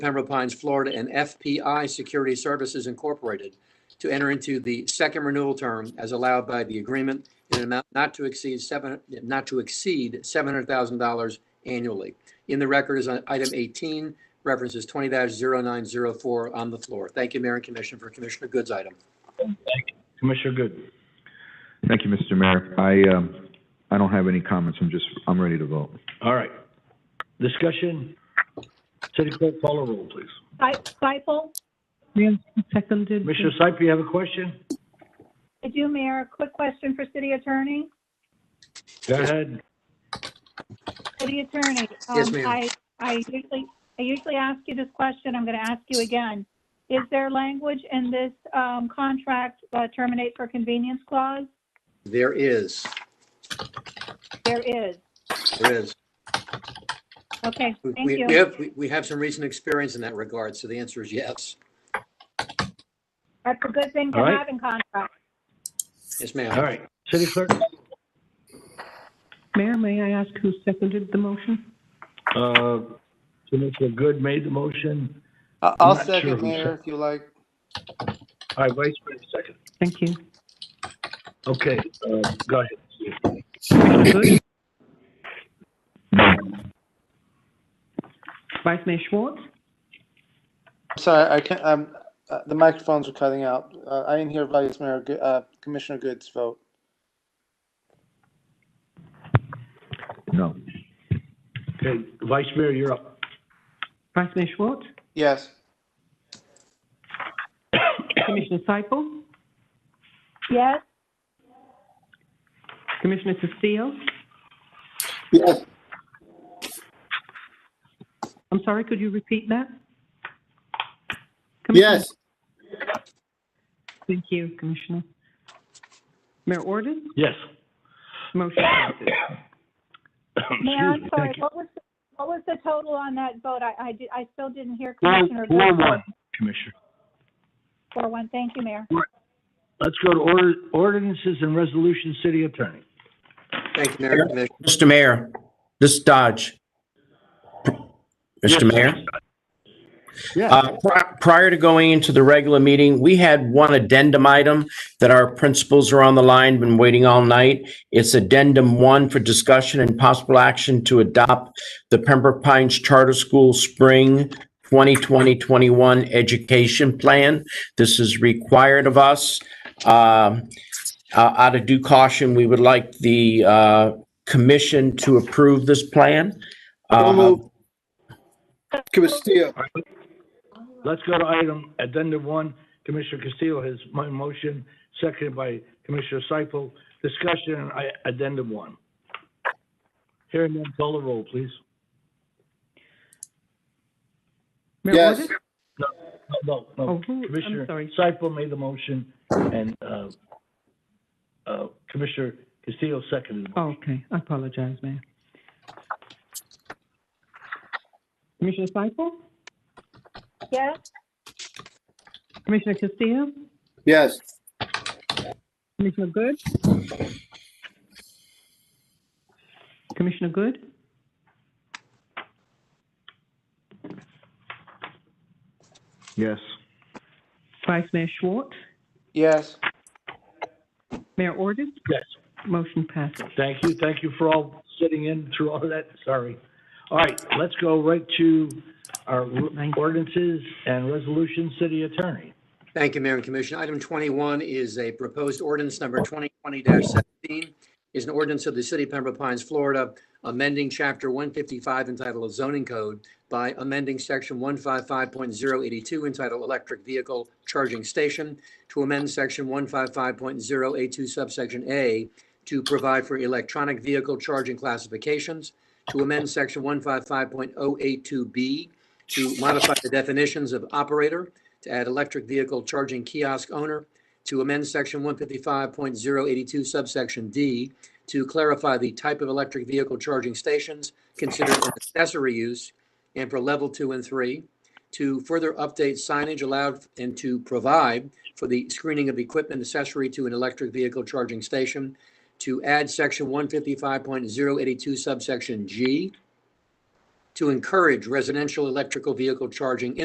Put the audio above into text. Pembroke Pines, Florida, and FPI Security Services Incorporated to enter into the second renewal term as allowed by the agreement in an amount not to exceed seven, not to exceed $700,000 annually. In the record is on item 18, references 20-0904 on the floor. Thank you, Mayor and Commissioner, for Commissioner Good's item. Commissioner Good. Thank you, Mr. Mayor. I, um, I don't have any comments. I'm just, I'm ready to vote. All right. Discussion? City Clerk, call a roll, please. Seifel, Mayor, seconded. Commissioner Seip, you have a question? I do, Mayor. A quick question for City Attorney. Go ahead. City Attorney. Yes, um, ma'am. I, I usually, I usually ask you this question. I'm going to ask you again. Is there language in this um, contract uh, terminate for convenience clause? There is, There is. there is. Okay, We- thank We you. have, we- we have some recent experience in that regard, so the answer is yes. That's a good thing to All right. have in contract. Yes, ma'am. All right. City Clerk, Mayor, may I ask who seconded the motion? uh, Commissioner Good made the motion. I- I'll not sure second, who Mayor, if you like. All right, Vice Mayor, second. Thank you. Okay, uh, go ahead. Good. Vice Mayor Schwartz, Sorry, I can't, um, uh, the microphones are cutting out. Uh, I didn't hear Vice Mayor, Go- uh, Commissioner Good's vote. No. Okay, Vice Mayor, you're up. Vice Mayor Schwartz, Yes. Commissioner Seifel, Yes, Commissioner Castillo. Yes. I'm sorry, could you repeat that? Commissioner- Thank you, Commissioner. Mayor Orden, Yes. motion passes. Mayor, Oh, I'm Excuse me, sorry. thank you. What was, what was the total on that vote? I, I, di- I still didn't hear Four, Commissioner. four, Good's vote. one, Commissioner. Four, one. Thank you, Mayor. Let's go to order, ordinances and resolutions, City Attorney. Thank you, Mayor and Commissioner. Mr. Mayor, this is Dodge. Mr. Mayor? Uh, pri- Prior to going into the regular meeting, we had one addendum item that our principals are on the line, been waiting all night. It's addendum one for discussion and possible action to adopt the Pembroke Pines Charter School Spring 2020-21 Education Plan. This is required of us. Um, uh, Out of due caution, we would like the uh, commission to approve this plan. Uh, Castillo. Let's go to item addendum one. Commissioner Castillo has my motion, seconded by Commissioner Seifel. Discussion on I- addendum one. Hearing none, call the roll, please. Mayor Yes. Orden? No, no, no, Oh, no. who- Commissioner I'm sorry. Seifel made the motion and, uh, uh, Commissioner Castillo seconded. it. Oh, Okay, I apologize, Mayor. Commissioner Seifel, Yes, Commissioner Castillo, Yes. Commissioner Good? Commissioner Good? Yes. Vice Mayor Schwartz? Yes. Mayor Orden? Yes. Motion passes. Thank you. Thank you for all sitting in through all of that. Sorry. All right, let's go right to our Thank you. ordinances and resolutions, city attorney. Thank you, Mayor and Commissioner. Item 21 is a proposed ordinance number 2020-17. Is an ordinance of the City of Pembroke Pines, Florida, amending Chapter 155 entitled Zoning Code by amending Section 155.082 entitled Electric Vehicle Charging Station to amend Section 155.082 subsection A to provide for electronic vehicle charging classifications, to amend Section 155.082B to modify the definitions of operator, to add electric vehicle charging kiosk owner, to amend section 155.082 subsection D to clarify the type of electric vehicle charging stations considered an accessory use and for level two and three, to further update signage allowed and to provide for the screening of equipment accessory to an electric vehicle charging station, to add section 155.082 subsection G to encourage residential electrical vehicle charging